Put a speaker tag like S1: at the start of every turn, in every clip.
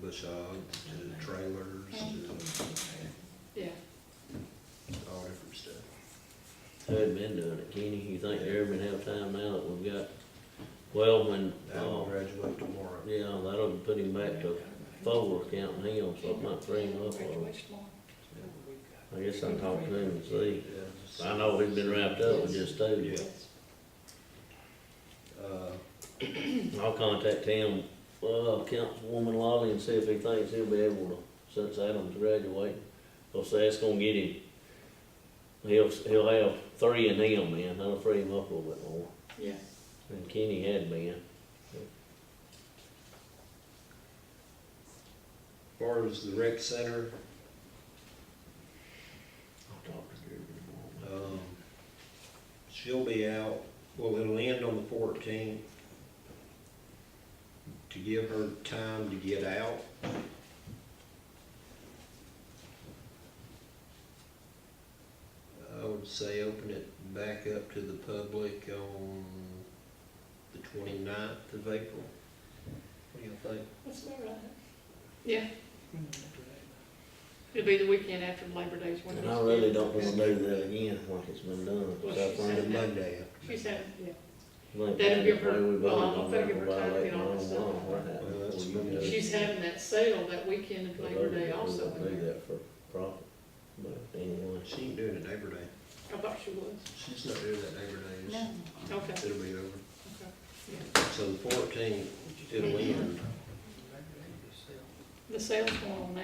S1: facades to trailers to
S2: Yeah,
S1: all different stuff.
S3: Who had been doing it, Kenny, you think they ever been have time now that we've got, well, when,
S1: I will
S3: uh,
S1: graduate tomorrow.
S3: yeah, that'll put him back to four counting him, so it might free him up a little. I guess I'll talk to him and see.
S1: Yes.
S3: I know he's been wrapped up with this too.
S1: Yeah. Uh,
S3: I'll contact him, uh, Councilwoman Lolly and see if he thinks he'll be able to, since Adam's graduating. Cause that's gonna get him, he'll, he'll have three in him, man, that'll free him up a little bit more.
S2: yeah.
S3: And Kenny had been.
S1: as far as the rec center,
S3: I'll talk to Gary tomorrow.
S1: um, she'll be out, well, it'll end on the fourteenth. To give her time to get out. I would say open it back up to the public on the 29th of April. What do you think?
S4: That's all right.
S2: Yeah, it'll be the weekend after Labor Day's one of
S3: And I
S2: those
S3: really
S2: deals.
S3: don't wanna do that again, like it's been done,
S2: Well, she
S3: so I
S2: said-
S3: think.
S1: On Monday after.
S2: She said, yeah,
S3: like
S2: That'll
S3: that,
S2: give her-
S3: way we've
S2: well,
S3: only
S2: I don't
S3: gone
S2: think give her
S3: by
S2: time to
S3: like
S2: get on
S3: nine
S2: this
S3: one,
S2: stuff.
S3: what happened?
S1: Well, that's
S3: We
S1: been
S3: did-
S1: done.
S2: she's having that sale that weekend of
S3: we
S2: Labor Day
S3: did
S2: also.
S3: do that for profit, but anyway.
S1: She ain't doing it Labor Day.
S2: I thought she was,
S1: She's not doing that Labor Day. is she?
S2: okay, okay,
S1: It'll be over. So the fourteenth, it'll end.
S2: The sale's going on now,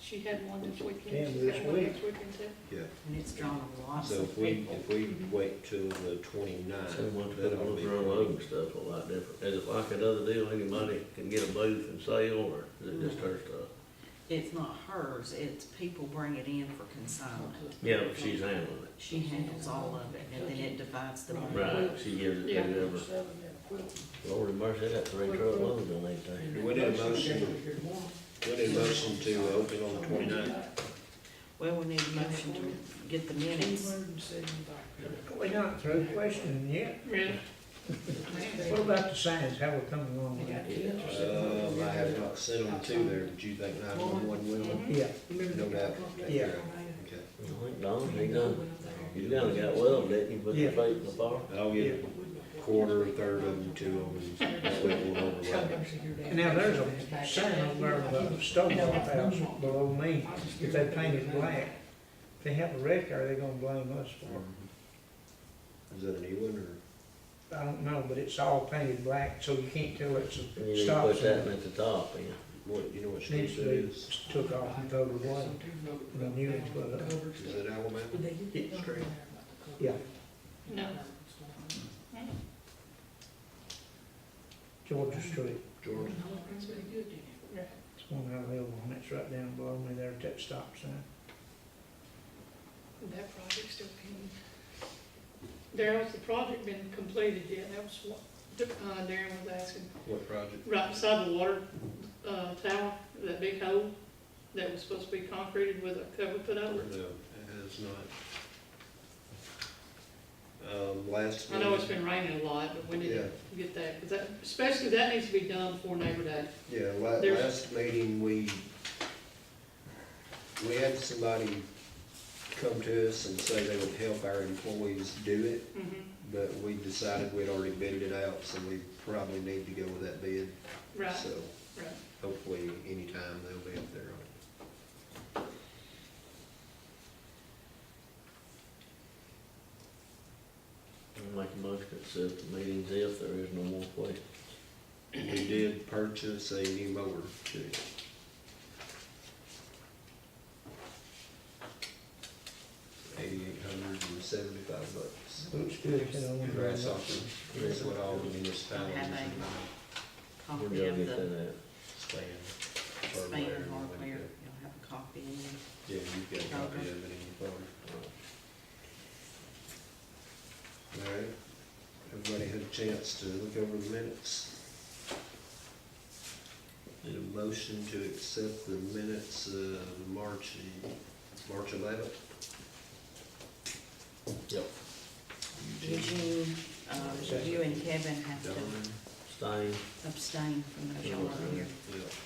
S2: she had one this weekend,
S5: Can
S2: she's
S5: this
S2: got one
S5: week.
S2: next weekend too.
S1: Yeah.
S4: And it's drawn a lot
S1: So
S4: of
S1: if we,
S4: people.
S1: if we wait till the
S3: So much
S1: 29th,
S3: better
S1: that'll
S3: with
S1: be.
S3: roll over stuff a lot different. Is it like that other deal, anybody can get a booth and sell, or is it just her stuff?
S4: It's not hers, it's people bring it in for consignment.
S3: Yeah, but she's handling it.
S4: She handles all of it, and then it divides the money.
S3: Right, she gives it to
S2: Yeah.
S3: whoever. Lord have mercy, that three truckloads on that thing.
S1: Do we need a motion, do we need a motion to open on the 29th?
S4: Well, we need a motion to get the
S1: Um,
S4: minutes.
S5: We're not through questioning yet.
S2: Really?
S5: What about the signs, how we're coming along with that?
S1: Um, I have not sent them to there, but you think nine one one will?
S5: Yeah,
S1: No doubt. Take
S5: Yeah.
S1: care of it. Okay.
S3: I think Don, Oh, he done, you done got well, didn't you, put the
S5: Yeah.
S3: plate in the bar?
S1: I'll get a quarter, a third of them to them, and that way we'll overlap.
S5: and now there's a sign over there about the Stonewall House below me, if they paint it black, if they have a wreck, are they gonna blame us for
S1: Um, Is that a new one, or?
S5: it? I don't know, but it's all painted black, so you can't tell it's
S3: You
S5: a
S3: need to
S5: stop
S3: put that in
S5: sign.
S3: at the top, yeah.
S1: What, you know what street
S5: Needs
S1: that
S5: to be
S1: is?
S5: took off and voted away. The new ones put up.
S1: Is it Alabama?
S5: It's straight. Yeah,
S2: No,
S5: Georgia Street,
S1: Georgia?
S5: it's one I live on, it's right down below me there at that stop sign.
S2: that project's still pending. Daryl's, the project been completed yet, that was what, uh, Darren was asking.
S1: What project?
S2: Right beside the water, uh, tower, that big hole that was supposed to be concreted with a cover put
S1: No,
S2: over
S1: it
S2: it.
S1: has not. Um, last.
S2: I know it's been raining a lot, but we need to get that, 'cause that, especially that needs to be done before Labor Day.
S1: Yeah, la-
S2: There's-
S1: last meeting, we, we had somebody come to us and say they would help our employees do it,
S2: Mhm.
S1: but we decided we'd already bid it out, so we probably need to go with that bid.
S2: Right,
S1: So
S2: right.
S1: hopefully anytime they'll be up there on it.
S3: I'll make a motion to accept the meetings if there is no more questions.
S1: We did purchase a new mower too. Eighty-eight hundred and seventy-five bucks.
S5: Looks good, you know. when you're
S1: Grass
S5: on it.
S1: offer, that's what all the municipalities
S4: Have
S1: are
S4: a
S1: buying,
S3: We're
S4: Copy
S3: gonna
S4: of
S3: get
S4: Oh, the
S3: that uh, out.
S1: span,
S4: span
S1: hardware. and
S4: hardware,
S1: whatnot.
S4: you'll have a copy in there.
S1: Yeah, you've got a copy of it in your phone. All right, everybody had a chance to look over the minutes. Need a motion to accept the minutes of March, March eleventh?
S3: Yep.
S1: Eugene,
S4: Eugene, uh, you and Kevin have
S1: Don,
S4: to
S3: Stein,
S4: abstain from those y'all are here.
S1: yeah,